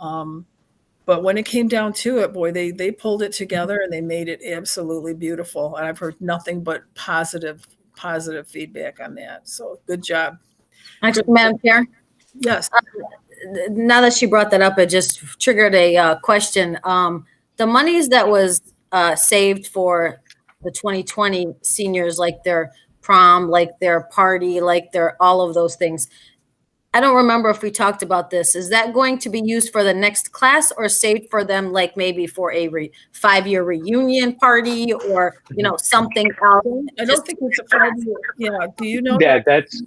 Um, but when it came down to it, boy, they they pulled it together and they made it absolutely beautiful. And I've heard nothing but positive positive feedback on that. So good job. Actually, Madam Chair, Yes. now that she brought that up, it just triggered a uh, question. Um, The monies that was uh, saved for the 2020 seniors, like their prom, like their party, like their, all of those things. I don't remember if we talked about this. Is that going to be used for the next class or saved for them, like maybe for a re- five-year reunion party or, you know, something else? I don't think it's a five year. Yeah. Do you know? Yeah, that's,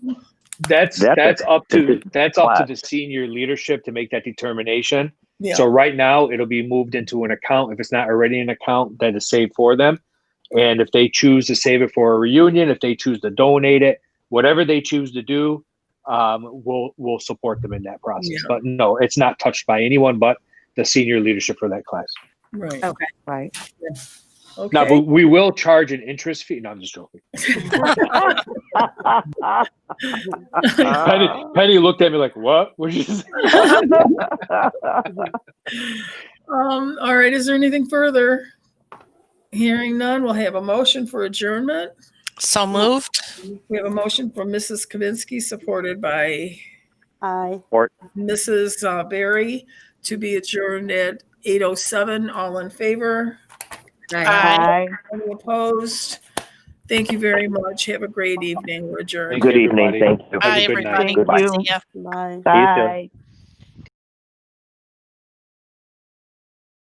that's, That's a- that's up to, that's that's up to the class. senior leadership to make that determination. Yeah. So right now, it'll be moved into an account, if it's not already an account, that is saved for them. And if they choose to save it for a reunion, if they choose to donate it, whatever they choose to do, um, we'll, we'll support them in that Yeah. process. But no, it's not touched by anyone but the senior leadership for that class. right. Okay. Right. Okay. Now, but we will charge an interest fee, no, I'm just joking. Penny, Penny looked at me like, what? What did you say? Um, all right, is there anything further? Hearing none, we'll have a motion for adjournment. So moved. We have a motion from Mrs. Kaminsky, supported by Aye. Mrs. uh, Barry, to be adjourned at 8:07. All in favor? Aye. Any opposed? Thank you very much. Have a great evening. We're adjourned. Thank Good you, evening, everybody. thank you. Have a Bye, good night. everybody. Goodbye. See ya. Bye. See you soon.